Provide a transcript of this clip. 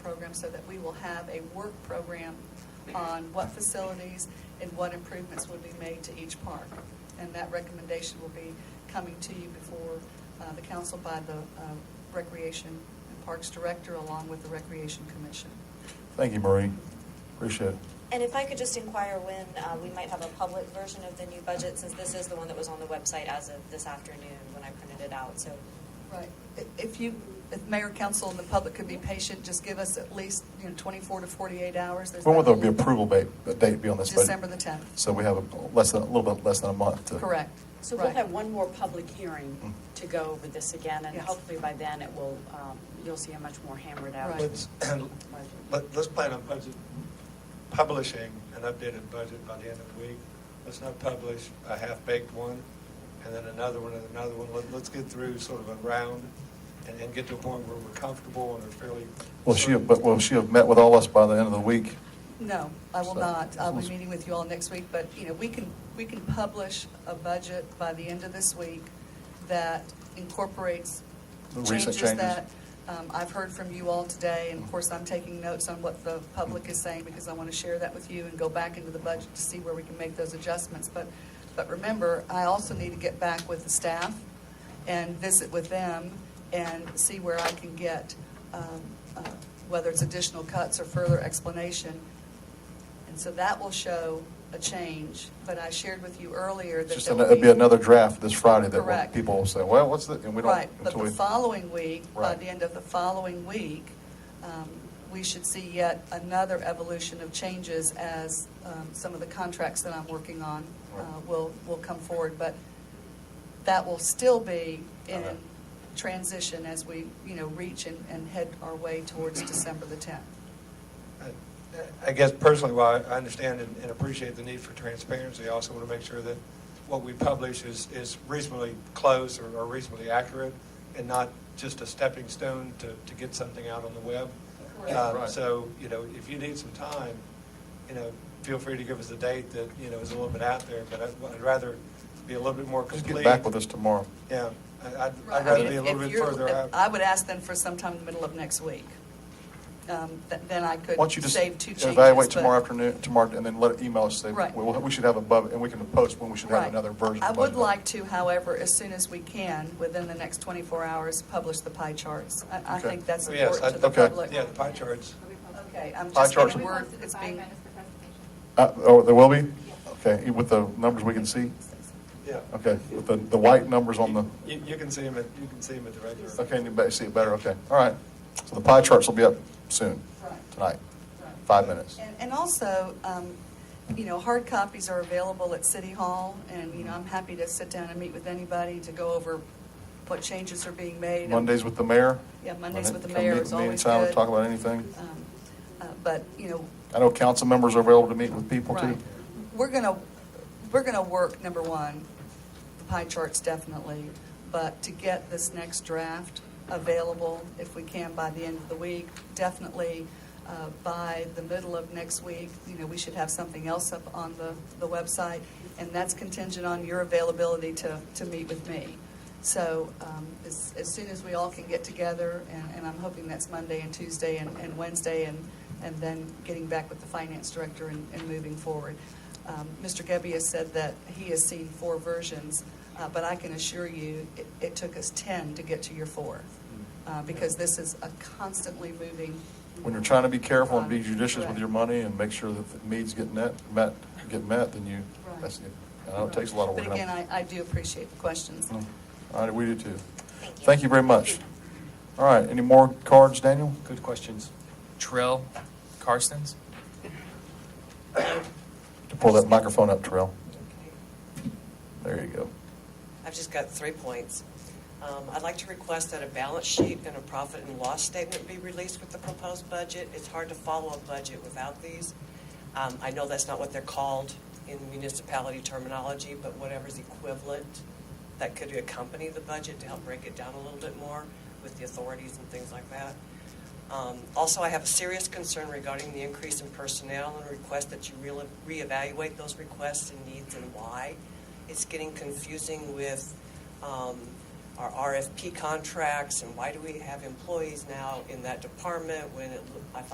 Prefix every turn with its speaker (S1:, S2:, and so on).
S1: program so that we will have a work program on what facilities and what improvements would be made to each park. And that recommendation will be coming to you before uh, the council by the uh, Recreation and Parks Director along with the Recreation Commission.
S2: Thank you, Marie. Appreciate it.
S3: And if I could just inquire when uh, we might have a public version of the new budget, since this is the one that was on the website as of this afternoon when I printed it out, so.
S1: Right. If you, if mayor, council, and the public could be patient, just give us at least, you know, 24 to 48 hours. There's
S2: When will
S1: not-
S2: the be approval date, the date be on this budget?
S1: December the 10th.
S2: So we have a less than, a little bit less than a month to. Mm-hmm.
S1: Correct.
S4: So we'll
S1: Right.
S4: have one more public hearing to go over this again, and
S1: Yes.
S4: hopefully by then it will, um, you'll see a much more hammered out.
S1: Right.
S5: Let's, let- let's plan on budget, publishing an updated budget by the end of the week. Let's not publish a half-baked one, and then another one, and another one. Let- Let's get through sort of a round, and then get to a point where we're comfortable and are fairly.
S2: Will she have, but will she have met with all us by the end of the week?
S1: No, I will
S2: So-
S1: not. I'll be meeting with you all next week, but, you know, we can, we can publish a budget by the end of this week that incorporates
S2: The recent
S1: changes
S2: changes. Mm-hmm.
S1: that um, I've heard from you all today, and of course, I'm taking notes on what the public is saying, because I want to share that with you and go back into the budget to see where we can make those adjustments. But, but remember, I also need to get back with the staff and visit with them and see where I can get, um, uh, whether it's additional cuts or further explanation. And so that will show a change, but I shared with you earlier
S2: It's
S1: that
S2: just,
S1: there
S2: an-
S1: will
S2: it'd be another draft this Friday that will-
S1: Correct.
S2: people will say, well, what's the, and we don't.
S1: Right, but
S2: until
S1: the
S2: we-
S1: following week, by
S2: Right.
S1: the end of the following week, um, we should see yet another evolution of changes as um, some of the contracts that I'm working on uh,
S2: Right.
S1: will, will come forward. But that will still be in
S2: Okay.
S1: transition as we, you know, reach and, and head our way towards December the 10th.
S5: I- I guess personally, while I understand and and appreciate the need for transparency, I also want to make sure that what we publish is, is reasonably close or or reasonably accurate and not just a stepping stone to, to get something out on the web.
S1: Correct.
S5: Um,
S2: Right.
S5: So, you know, if you need some time, you know, feel free to give us a date that, you know, is a little bit out there, but I'd- I'd rather be a little bit more
S2: Just
S5: complete.
S2: get back with us tomorrow.
S5: Yeah, I- I'd
S1: Right,
S5: I'd
S1: I
S5: rather
S1: mean,
S5: be a
S1: if-
S5: little
S1: if
S5: bit
S1: you're-
S5: further out.
S1: I would ask them for sometime in the middle of next week. Um, th- Then I could
S2: Why don't you just
S1: save two changes.
S2: evaluate
S1: but-
S2: tomorrow afternoon, tomorrow, and then let, email us, say,
S1: Right.
S2: well, we should have above, and we can post when we should have
S1: Right.
S2: another version.
S1: I
S2: of
S1: would
S2: budget.
S1: like to, however, as soon as we can, within the next 24 hours, publish the pie charts. I, I
S2: Okay.
S1: think that's
S5: Oh, yes,
S1: important to
S5: I-
S1: the
S2: okay.
S1: public.
S5: Yeah, the pie charts.
S1: Okay, I'm
S2: Pie
S1: just
S2: charts.
S1: going to word,
S6: Posted
S1: it's
S6: the five
S1: being,
S6: minus the presentation.
S2: Uh, Oh, there will be? Okay, with the numbers we can see?
S5: Yeah.
S2: Okay, with the, the white numbers on the,
S5: You, you can see them at, you can see 'em at the regular.
S2: okay, you better see it better, okay, all right. So the pie charts will be up soon,
S1: Right.
S2: tonight, five minutes.
S1: and, and also, um, you know, hard copies are available at City Hall, and, you know, I'm happy to sit down and meet with anybody to go over what changes are being made. and-
S2: Mondays with the mayor?
S1: Yeah, Mondays with the
S2: Come
S1: mayor
S2: meet-
S1: is
S2: meet in
S1: always
S2: town,
S1: good.
S2: Talk about anything.
S1: um, uh, But, you know,
S2: I know council members are available to meet with people too.
S1: Right. We're going to, we're going to work, number one, the pie charts definitely, but to get this next draft available, if we can, by the end of the week, definitely uh, by the middle of next week, you know, we should have something else up on the, the website, and that's contingent on your availability to, to meet with me. So um, as, as soon as we all can get together, and, and I'm hoping that's Monday and Tuesday and, and Wednesday, and, and then getting back with the finance director and, and moving forward. Um, Mr. Gebbia said that he has seen four versions, uh, but I can assure you, it, it took us 10 to get to your four, uh, because this is a constantly moving.
S2: Mm. When you're trying to be careful and be judicious with
S1: Correct.
S2: your money and make sure that the needs get net, met, get met, then you, that's, it. I know it takes a lot of work. Mm.
S1: But again, I, I do appreciate the questions.
S2: All right, we do too.
S3: Thank you.
S2: Thank you very much. All right, any more cards, Daniel?
S7: Good questions. Trill, Carstens?
S2: To Pull that microphone up, Terrell. There you go.
S8: I've just got three points. Um, I'd like to request that a balance sheet and a profit and loss statement be released with the proposed budget. It's hard to follow a budget without these. Um, I know that's not what they're called in municipality terminology, but whatever's equivalent that could accompany the budget to help break it down a little bit more with the authorities and things like that. Um, Also, I have a serious concern regarding the increase in personnel and request that you real- reevaluate those requests and needs and why. It's getting confusing with um, our RFP contracts and why do we have employees now in that department when it, loo- I thought